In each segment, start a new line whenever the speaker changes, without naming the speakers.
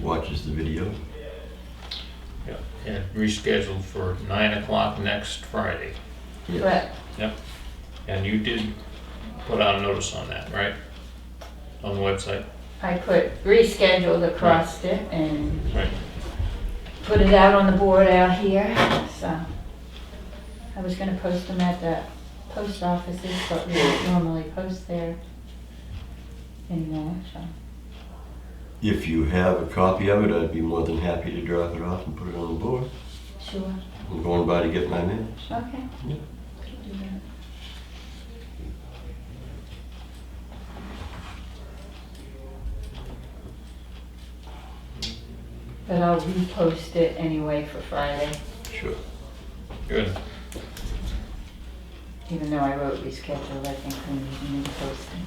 watches the video.
Yeah, and rescheduled for nine o'clock next Friday.
Correct.
And you did put out a notice on that, right? On the website?
I put rescheduled across it and
Right.
put it out on the board out here, so. I was gonna post them at the post offices, but we don't normally post there anymore, so.
If you have a copy of it, I'd be more than happy to drop it off and put it on the board.
Sure,
I'm going by to get my minutes.
okay.
Yeah.
Could do that. But I'll repost it anyway for Friday.
Sure.
Good.
Even though I wrote rescheduled, I think we need new posting.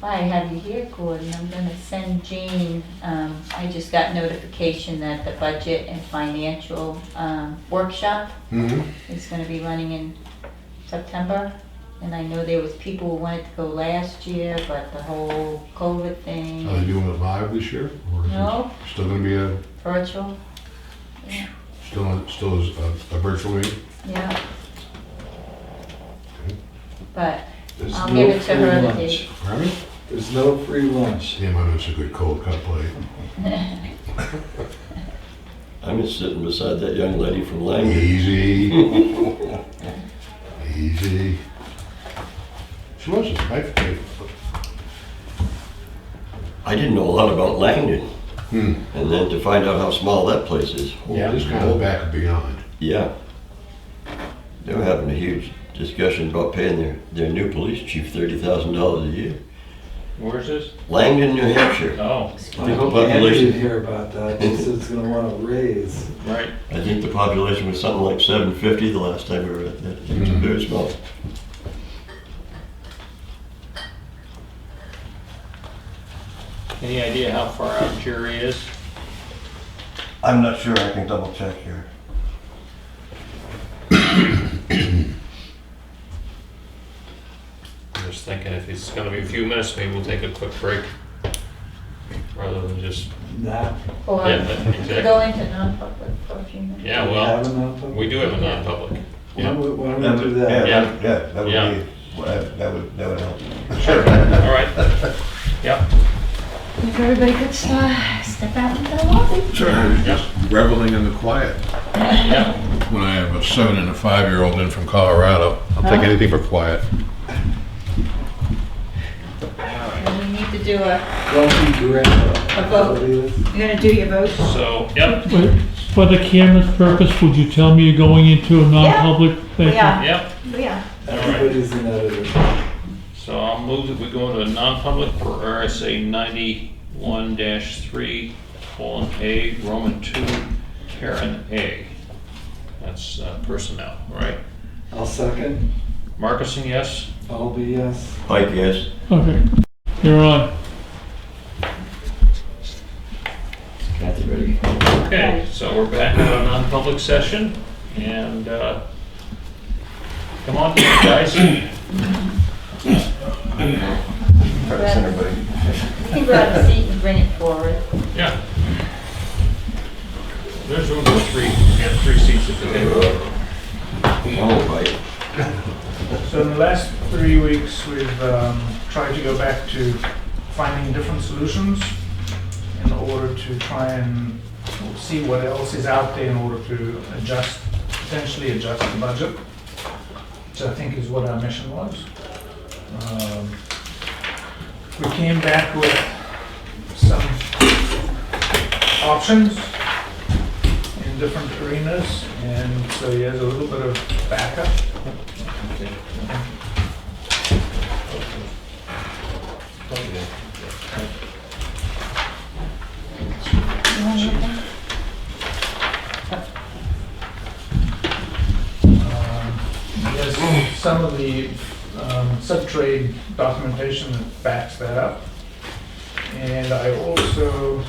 Why I have you here, Gordon, I'm gonna send Jean, um, I just got notification that the budget and financial, um, workshop is gonna be running in September. And I know there was people who wanted to go last year, but the whole COVID thing,
Are they doing it live this year? or is it
No.
Still gonna be a,
virtual. Yeah.
still, still is a, a virtual meeting?
Yeah.
Okay.
But
There's
I'll
no
give it to
free
her the
lunch.
date.
Pardon?
There's no free lunch.
Yeah, my it's a good cold cut plate.
I'm just sitting beside that young lady from Langley.
Easy. Easy. She was a knife plate.
I didn't know a lot about Langdon.
Hmm.
And then to find out how small that place is.
Yeah, this kind of back and beyond.
Yeah. They were having a huge discussion about paying their, their new police chief $30,000 a year.
Where's this?
Langdon, New Hampshire.
Oh,
I hope Andrew
population,
didn't hear about that. She said it's gonna want a raise.
right.
I think the population was something like 750 the last time we were at that. It's
Mhm.
very small.
Any idea how far out Jerry is?
I'm not sure, I can double check here.
I'm just thinking if it's gonna be a few minutes, maybe we'll take a quick break. Rather than just,
Nah.
Or
yeah, that- exactly.
go into non-public for a few minutes.
Yeah,
Have
Oh, well,
enough of-
we do have a non-public.
Why don't we- why don't we do that?
Yeah.
that would
Yeah.
be, that would, that would help.
Sure, all right. Yeah.
If everybody could uh, step out into the lobby.
Just reveling in the quiet.
Yeah.
When I have a seven and a five-year-old in from Colorado, I'll take anything for quiet.
And we need to do a,
Don't be grandpa.
A vote. you're gonna do your vote?
So, yep,
But for the camera's purpose, would you tell me you're going into a non-public? Thank you.
Yeah,
yep.
yeah.
Everybody's an editor.
So I'll move that we go into a non-public for RSA ninety-one dash three, colon A, Roman two, Karen A. That's uh, personnel, right?
I'll second.
Marcuson, yes?
I'll be yes.
Pike, yes?
Okay, you're on.
Kathy, ready?
Okay, so we're back in a non-public session, and, uh, come on, guys.
You can grab a seat and bring it forward.
Yeah. There's room for three, yeah, three seats at the table.
Oh, Pike.
So in the last three weeks, we've um, tried to go back to finding different solutions in order to try and see what else is out there in order to adjust, potentially adjust the budget, which I think is what our mission was. Um, We came back with some options in different arenas, and so he has a little bit of backup.
You want to look at it?
Um, Yes, some of the um, sub-trade documentation that backs that up. And I also